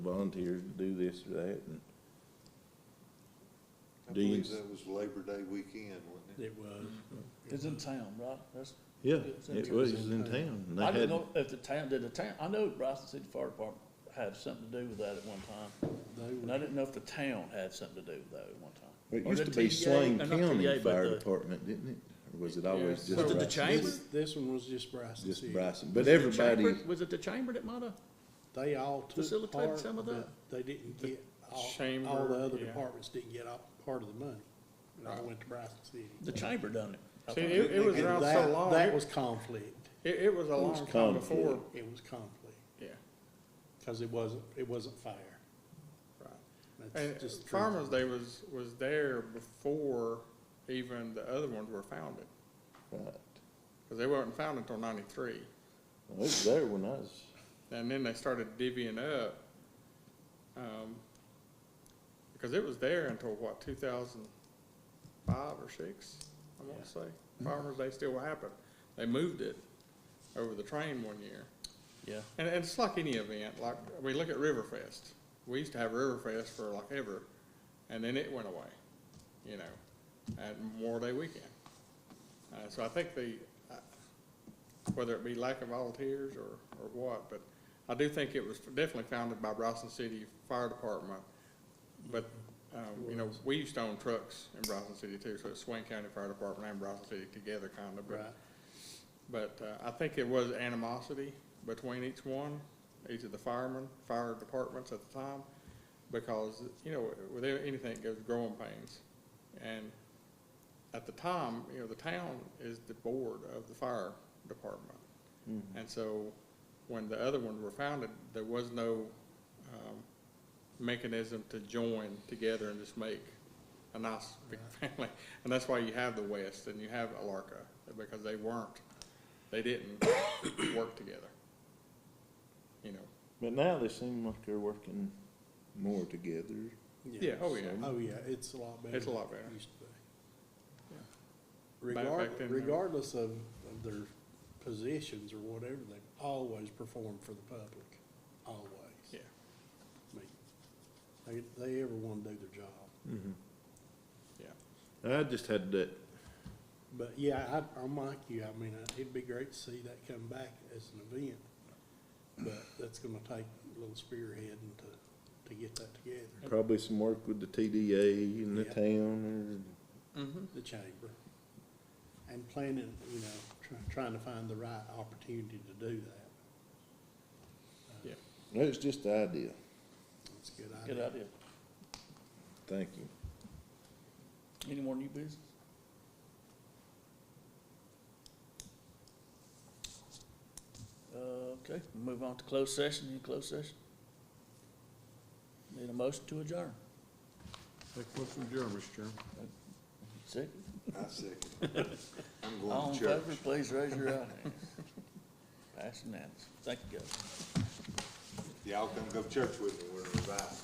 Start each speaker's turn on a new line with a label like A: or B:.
A: volunteers to do this or that, and
B: I
A: Dean's-
B: believe that was Labor Day weekend, wasn't it?
C: It was.
D: It's in town, right? That's,
A: yeah,
D: It's in
A: it
D: town.
A: was in town. and they
D: I
A: had-
D: don't know if the town, did the town, I know Bryson City Fire Department had something to do with that at one time.
C: They
D: And I didn't know if the town had something to do with that at one time.
A: It
D: Or
A: used
D: the
A: to be
D: TA
A: Swain
D: or not TA,
A: County
D: but
A: Fire
D: the-
A: Department, didn't it? Or was it always
C: Yeah.
A: just
C: Was it
D: the
A: Bryson?
D: chamber?
C: This, this one was just Bryson
A: Just
C: City.
A: Bryson, but
D: Was it the
A: everybody,
D: chamber- Was it the chamber that might have?
C: They all took
D: Facilitate
C: part,
D: some of
C: but they didn't get, all, all
E: chamber,
C: the other
E: yeah.
C: departments didn't get all, part of the money. It all went to Bryson City.
D: The chamber done it. I
E: See,
D: think.
E: it, it was
C: And
E: around so
C: that-
E: long,
C: That
E: it,
C: was conflict.
E: it it was a
A: was
E: long time before,
A: conflict.
C: It was conflict,
E: yeah.
C: cause it wasn't, it wasn't fair.
E: And
C: That's just. the truth.
E: Farmers Day was, was there before even the other ones were founded,
A: right,
E: because they weren't founded until ninety-three.
A: Well, it was there when I was,
E: And then they started divvying up, um, because it was there until what, two thousand five or six, I wanna say. Farmers Day still happened. They moved it over the train one year.
D: Yeah,
E: And, and it's like any event, like, we look at Riverfest. We used to have Riverfest for like ever, and then it went away, you know, at Memorial Day weekend. Uh, so I think the, uh, whether it be lack of volunteers or, or what, but I do think it was definitely founded by Bryson City Fire Department. But, um, you know, we used to own trucks in Bryson City too, so it's Swain County Fire Department and Bryson City together kind of, but
C: Right.
E: but uh, I think it was animosity between each one, each of the firemen, fire departments at the time, because, you know, with anything, it goes growing pains. And at the time, you know, the town is the board of the fire department. And so when the other ones were founded, there was no um, mechanism to join together and just make a nice big family. And that's why you have the West and you have Alarka, because they weren't, they didn't work together. You know,
A: but now they seem like they're working more together.
E: yeah, oh yeah,
C: Oh, yeah, it's a lot better.
E: It's a lot
C: than it
E: better.
C: used to be.
E: Yeah. Back-
C: Regard,
E: back then, uh, they were-
C: regardless of, of their positions or whatever, they've always performed for the public, always.
E: yeah.
C: I mean, They, they ever wanna do their job.
A: I just had that,
C: But yeah, I, I'm like you, I mean, I- it'd be great to see that come back as an event, but that's gonna take a little spearheading to, to get that together,
A: probably some work with the TDA and the
C: Yeah.
A: town
E: Mhm.
C: the chamber. And planning, you know, try, trying to find the right opportunity to do that.
A: or, it's just the idea.
C: That's a good
D: good
C: idea.
D: idea.
A: Thank you.
D: Any more new business? Uh, okay, move on to closed session, any closed session? Need a motion to adjourn,
E: Take a question, Mr. Chairman.
D: second,
B: I second. I'm
D: all
B: going to
D: in
B: church.
D: favor, please raise your right hand. Pass unanimous, thank you, guys.
B: Y'all come go to church with me, we're revived.